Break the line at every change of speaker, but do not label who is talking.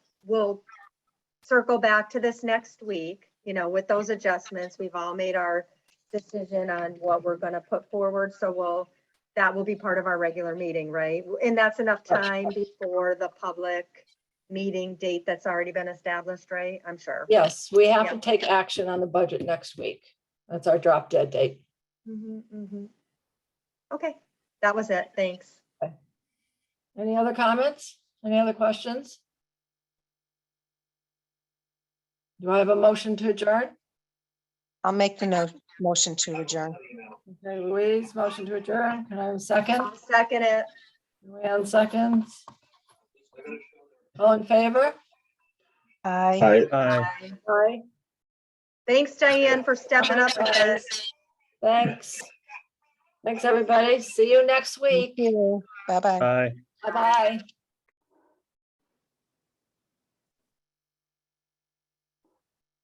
we'll circle back to this next week, you know, with those adjustments. We've all made our decision on what we're gonna put forward, so we'll, that will be part of our regular meeting, right? And that's enough time before the public meeting date that's already been established, right? I'm sure.
Yes, we have to
Yeah.
take action on the budget next week. That's our drop dead date.
Mhm, mhm. Okay, that was it. Thanks.
Any other comments? Any other questions? Do I have a motion to adjourn?
I'll make the no- motion to adjourn.
Okay, Louise, motion to adjourn. Can I have a second?
I'll Second it.
Luanne seconds. All in favor?
Aye.
Hi.
Aye.
Aye.
Thanks, Diane, for stepping up with this.
Thanks. Thanks, everybody. See you next week.
Bye-bye.
Aye.
Bye-bye.